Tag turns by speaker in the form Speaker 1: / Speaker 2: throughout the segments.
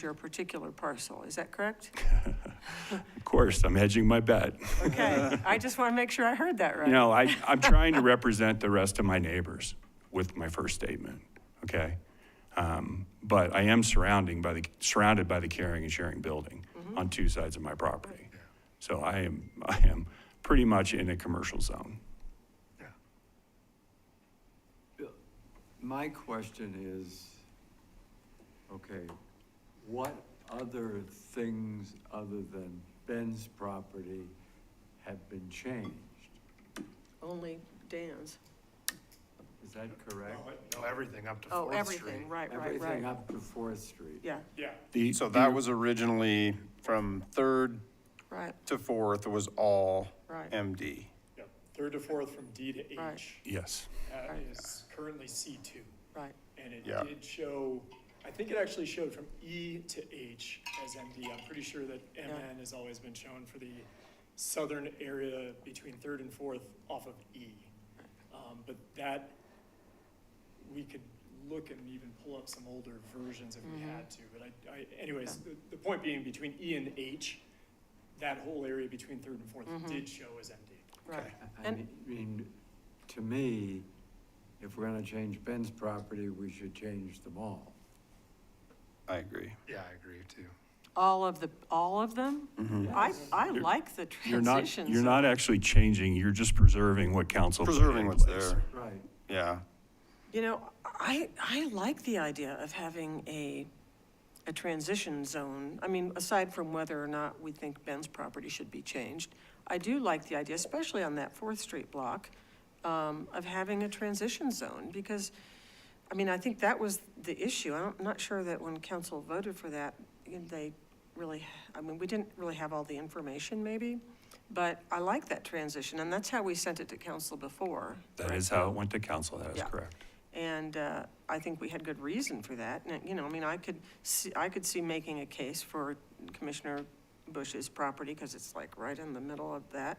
Speaker 1: your particular parcel, is that correct?
Speaker 2: Of course, I'm hedging my bet.
Speaker 1: Okay, I just want to make sure I heard that right.
Speaker 2: You know, I, I'm trying to represent the rest of my neighbors with my first statement, okay? Um, But I am surrounding by the, surrounded by the caring and sharing building
Speaker 1: Mm-hmm.
Speaker 2: on two sides of my property. So I am, I am pretty much in a commercial zone.
Speaker 3: My question is, okay, what other things other than Ben's property have been changed?
Speaker 1: Only Dan's.
Speaker 3: Is that correct?
Speaker 4: No, everything up to
Speaker 1: Oh,
Speaker 4: Fourth Street.
Speaker 1: everything, right, right,
Speaker 3: Everything
Speaker 1: right.
Speaker 3: up to Fourth Street?
Speaker 1: Yeah,
Speaker 2: The-
Speaker 4: So that was originally from Third
Speaker 1: right,
Speaker 4: to Fourth was all
Speaker 1: Right.
Speaker 4: MD.
Speaker 5: Yep, third to fourth from D to
Speaker 1: Right.
Speaker 5: H
Speaker 2: Yes,
Speaker 5: uh,
Speaker 1: Right.
Speaker 5: is currently C2.
Speaker 1: right.
Speaker 5: And it
Speaker 4: Yeah.
Speaker 5: did show, I think it actually showed from E to H as MD. I'm pretty sure that MN has always been shown for the southern area between third and fourth off of E. Um, But that, we could look and even pull up some older versions if we
Speaker 1: Mm-hmm.
Speaker 5: had to. But I, I, anyways, the, the point being, between E and H, that whole area between third and fourth
Speaker 1: Mm-hmm.
Speaker 5: did show as MD.
Speaker 1: Right.
Speaker 3: I
Speaker 1: And-
Speaker 3: mean, to me, if we're gonna change Ben's property, we should change them all.
Speaker 4: I agree.
Speaker 6: Yeah, I agree too.
Speaker 1: All of the, all of them? I, I like the
Speaker 2: Mm-hmm. you're not,
Speaker 1: transitions.
Speaker 2: you're not actually changing, you're just preserving what council. put
Speaker 4: Preserving
Speaker 2: in
Speaker 4: what's
Speaker 2: place.
Speaker 4: there,
Speaker 3: Right.
Speaker 4: yeah.
Speaker 1: You know, I, I like the idea of having a, a transition zone. I mean, aside from whether or not we think Ben's property should be changed, I do like the idea, especially on that Fourth Street block, um, of having a transition zone, because, I mean, I think that was the issue. I don't- I'm not sure that when council voted for that, you know, they really, I mean, we didn't really have all the information, maybe, but I like that transition, and that's how we sent it to council before.
Speaker 2: That is how it went to council, that is
Speaker 1: Yeah.
Speaker 2: correct.
Speaker 1: And uh, I think we had good reason for that. And, you know, I mean, I could, see- I could see making a case for Commissioner Bush's property because it's like right in the middle of that.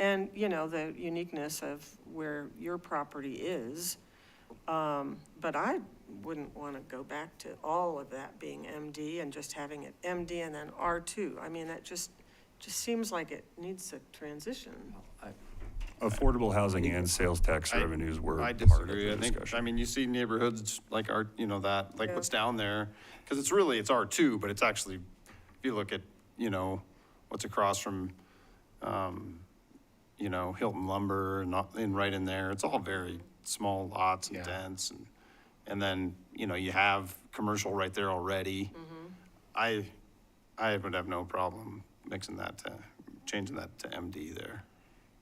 Speaker 1: And, you know, the uniqueness of where your property is. Um, But I wouldn't want to go back to all of that being MD and just having it MD and then R2. I mean, that just, just seems like it needs a transition.
Speaker 2: Affordable housing and sales tax
Speaker 4: I-
Speaker 2: revenues were
Speaker 4: I
Speaker 2: part of
Speaker 4: disagree.
Speaker 2: the
Speaker 4: I think, I
Speaker 2: discussion.
Speaker 4: mean, you see neighborhoods like our, you know, that, like
Speaker 1: Yeah.
Speaker 4: what's down there, because it's really, it's R2, but it's actually, if you look at, you know, what's across from, um, you know, Hilton Lumber and, all- and right in there, it's all very small lots and
Speaker 6: Yeah.
Speaker 4: dense. and- And then, you know, you have commercial right there already.
Speaker 1: Mm-hmm.
Speaker 4: I, I would have no problem mixing that to, changing that to MD there.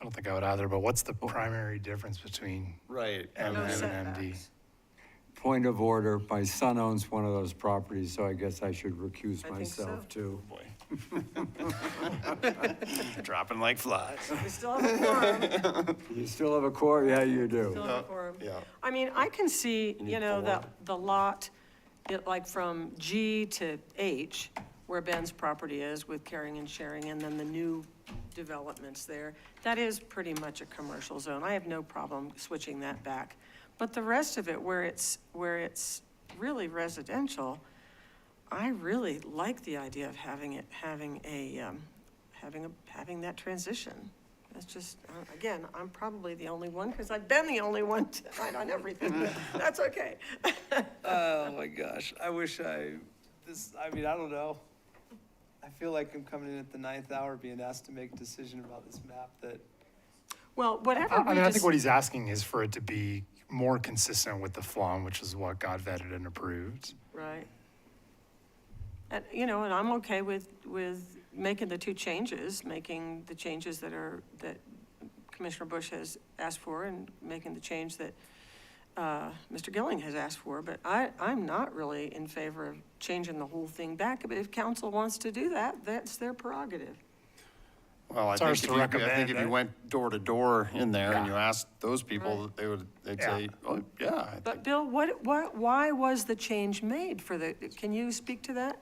Speaker 6: I don't think I would either, but what's the primary difference between
Speaker 4: Right.
Speaker 6: M
Speaker 1: No
Speaker 6: and an MD?
Speaker 1: setbacks.
Speaker 3: Point of order, my son owns one of those properties, so I guess I should recuse
Speaker 1: I think so.
Speaker 3: myself too.
Speaker 4: Boy. Dropping like flies.
Speaker 1: We still have a forum.
Speaker 3: You still have a core? Yeah, you do.
Speaker 1: Still have a forum.
Speaker 4: Uh, Yeah.
Speaker 1: I mean, I can see,
Speaker 4: need
Speaker 1: you know, the,
Speaker 4: four.
Speaker 1: the lot, it like from G to H, where Ben's property is with caring and sharing, and then the new developments there. That is pretty much a commercial zone. I have no problem switching that back. But the rest of it, where it's, where it's really residential, I really like the idea of having it, having a, um, having a, having that transition. That's just, uh, again, I'm probably the only one, because I've been the only one tonight on everything. but That's okay.
Speaker 7: Oh my gosh, I wish I, this, I mean, I don't know. I feel like I'm coming in at the ninth hour being asked to make a decision about this map that,
Speaker 1: Well, whatever
Speaker 6: I I
Speaker 1: we
Speaker 6: mean, I think
Speaker 1: just,
Speaker 6: what he's asking is for it to be more consistent with the FLOM, which is what got vetted and approved.
Speaker 1: right. And, you know, and I'm okay with, with making the two changes, making the changes that are, that Commissioner Bush has asked for, and making the change that uh, Mr. Gilling has asked for, but I, I'm not really in favor of changing the whole thing back. But if council wants to do that, that's their prerogative.
Speaker 4: Well, I
Speaker 6: It's
Speaker 4: think
Speaker 6: ours
Speaker 4: if
Speaker 6: to
Speaker 4: you, I think
Speaker 6: recommend,
Speaker 4: if you
Speaker 6: right?
Speaker 4: went door to door in there and you asked those people,
Speaker 1: Right.
Speaker 4: they would, they'd
Speaker 6: Yeah.
Speaker 4: say, oh, yeah. I think
Speaker 1: But Bill, what, what, why was the change made for the, can you speak to that?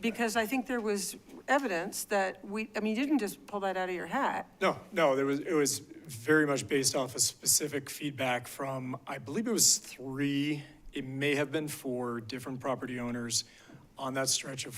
Speaker 1: Because I think there was evidence that we, I mean, you didn't just pull that out of your hat.
Speaker 5: No, no, there was, it was very much based off of specific feedback from, I believe it was three, it may have been four different property owners on that stretch of